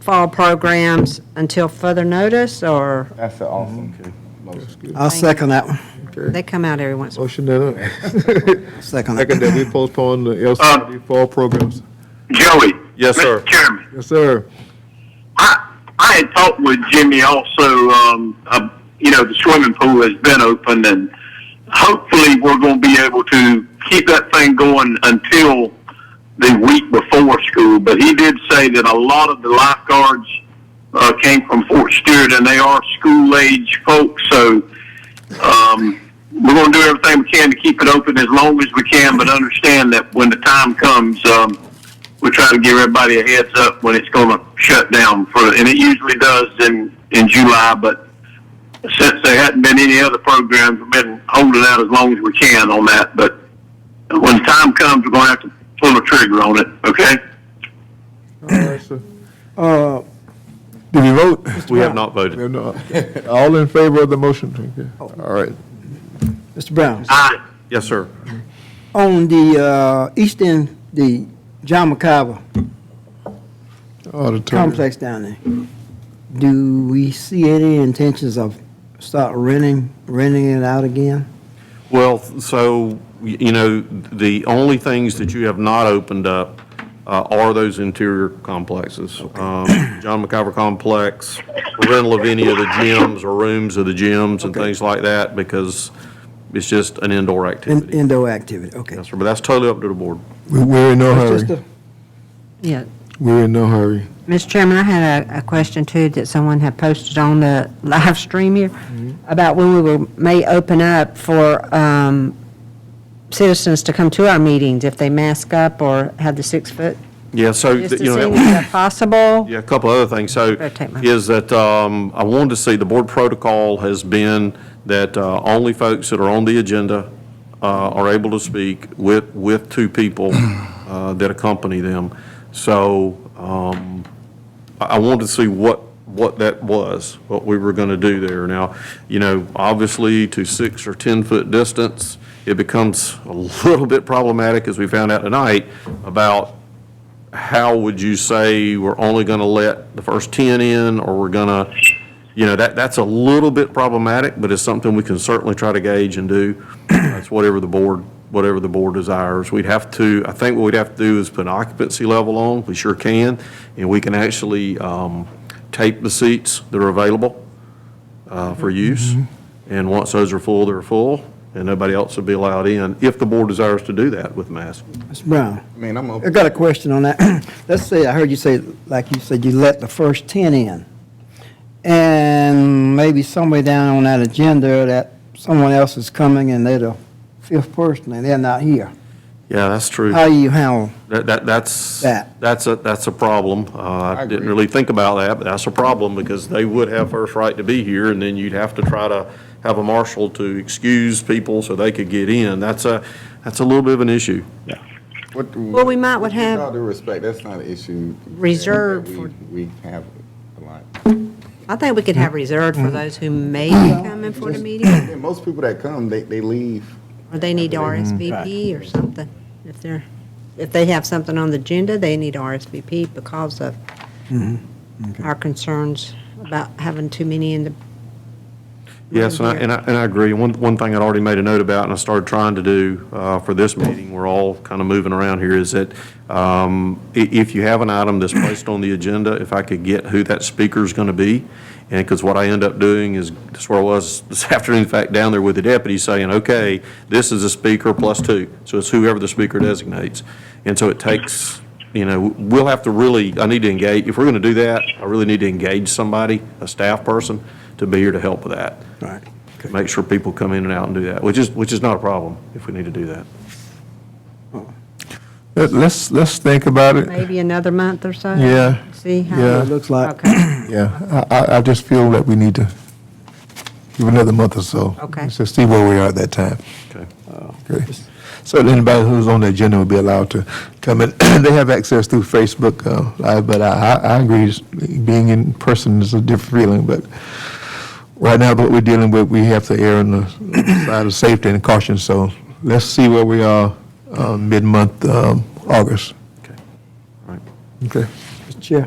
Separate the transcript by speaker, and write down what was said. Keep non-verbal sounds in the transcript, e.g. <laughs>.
Speaker 1: fall programs until further notice, or
Speaker 2: That's an
Speaker 3: Mm-hmm.
Speaker 2: awesome motion.
Speaker 4: I'll second that one.
Speaker 1: they come out every once? in a
Speaker 3: Motion <laughs> that, second
Speaker 4: Second that.
Speaker 3: that we postpone the LCRD fall programs.
Speaker 5: Joey.
Speaker 6: Yes, sir.
Speaker 5: Mr. Chairman,
Speaker 3: Yes, sir.
Speaker 5: I, I had talked with Jimmy also, um, uh, you know, the swimming pool has been open and hopefully we're going to be able to keep that thing going until the week before school. But he did say that a lot of the lifeguards uh, came from Fort Stewart and they are school age folks. So um, we're going to do everything we can to keep it open as long as we can, but understand that when the time comes, um, we try to give everybody a heads up when it's going to shut down for, and it usually does in, in July, but since there hadn't been any other programs, we've been holding out as long as we can on that, but when the time comes, we're going to have to pull the trigger on it, okay?
Speaker 3: All right, sir.
Speaker 4: Uh,
Speaker 3: Did we vote?
Speaker 6: We have not
Speaker 3: We
Speaker 6: voted.
Speaker 3: have not.
Speaker 2: <laughs>
Speaker 3: All in favor of the motion? Okay.
Speaker 4: Oh.
Speaker 3: All right.
Speaker 4: Mr. Brown,
Speaker 5: Aye.
Speaker 6: Yes, sir.
Speaker 4: on the uh, east end, the John McCabe
Speaker 3: Auditor.
Speaker 4: complex down there, do we see any intentions of start renting, renting it out again?
Speaker 6: Well, so, you know, the only things that you have not opened up uh, are those interior complexes. Um, John McIver Complex, rental of any of the gyms or rooms of the gyms and things like that, because it's just an indoor
Speaker 4: In-
Speaker 6: activity.
Speaker 4: Indoor activity, okay.
Speaker 6: Yes, sir, but that's totally up to the board.
Speaker 3: We- We're in no
Speaker 4: It's just
Speaker 3: hurry.
Speaker 4: a-
Speaker 1: Yeah,
Speaker 3: We're in no hurry.
Speaker 1: Mr. Chairman, I had a, a question too that someone had posted on the <laughs> live stream here about when we will, may open up for, um, citizens to come to our meetings if they mask up or have the six foot.
Speaker 6: Yeah, so,
Speaker 1: Just to see
Speaker 6: you know, that
Speaker 1: if
Speaker 6: was-
Speaker 1: that's possible.
Speaker 6: Yeah, a couple other things. So
Speaker 1: Rotate my-
Speaker 6: is that um, I wanted to see, the board protocol has been that uh, only folks that are on the agenda uh, are able to speak with, with two people uh, that accompany them. So um, I I wanted to see what, what that was, what we were going to do there. Now, you know, obviously to six or 10-foot distance, it becomes a little bit problematic, as we found out tonight, about how would you say we're only going to let the first 10 in, or we're going to, you know, that, that's a little bit problematic, but it's something we can certainly try to gauge and do. <clears throat> That's whatever the board, whatever the board desires. We'd have to, I think what we'd have to do is put an occupancy level on, we sure can, and we can actually um, tape the seats that are available uh, for use, and once those are full, they're full, and nobody else will be allowed in, if the board desires to do that with masks.
Speaker 4: Mr. Brown.
Speaker 2: I mean, I'm,
Speaker 4: I
Speaker 2: a-
Speaker 4: got a question on that. <clears throat> Let's say, I heard you say, like you said, you let the first 10 in. And maybe somewhere down on that agenda that someone else is coming and they're the fifth person and they're not here.
Speaker 6: Yeah, that's true.
Speaker 4: How you handle?
Speaker 6: That, that, that's,
Speaker 4: That.
Speaker 6: that's a, that's a problem. Uh, I didn't really think about that, but that's a problem because they would have first right to be here and then you'd have to try to have a marshal to excuse people so they could get in. That's a, that's a little bit of an issue.
Speaker 2: what, do-
Speaker 1: Well, we might would
Speaker 2: with all
Speaker 1: have,
Speaker 2: due respect, that's not an issue. that
Speaker 1: Reserved
Speaker 2: we-
Speaker 1: for-
Speaker 2: We have a lot. <clears throat>
Speaker 1: I think we could have reserved for those who may be coming for the meeting,
Speaker 2: And most people that come, they, they leave.
Speaker 1: or they need to RSVP or something. If they're, if they have something on the agenda, they need to RSVP because of our concerns about having too many in the
Speaker 6: Yes, and I, and I, and I agree. One, one thing I'd already made a note about and I started trying to do, uh, for this meeting, we're all kind of moving around here, is that, um, i- if you have an item that's placed on the agenda, if I could get who that speaker's gonna be. And, because what I end up doing is, that's where I was <laughs> this afternoon, in fact, down there with the deputy saying, okay, this is a speaker plus two. So it's whoever the speaker designates. And so it takes, you know, we'll have to really, I need to engage, if we're gonna do that, I really need to engage somebody, a staff person, to be here to help with that
Speaker 4: Right.
Speaker 6: make sure people come in and out and do that, which is, which is not a problem if we need to do that.
Speaker 3: Let- Let's, let's think about it.
Speaker 1: maybe another month or so?
Speaker 3: Yeah,
Speaker 1: See how?
Speaker 3: yeah.
Speaker 4: It looks like.
Speaker 1: Okay,
Speaker 3: Yeah, I, I, I just feel that we need to give another month or so.
Speaker 1: Okay.
Speaker 3: So see where we are at that time.
Speaker 6: Okay.
Speaker 3: Okay. So anybody who's on the agenda will be allowed to come in. <clears throat> They have access through Facebook uh, Live, but I, I I agree, s- being in person is a different feeling, but right now, what we're dealing with, we have to err on the <clears throat> side of safety and caution, so let's see where we are, uh, mid-month, um, August.
Speaker 6: Okay. All right.
Speaker 3: Okay.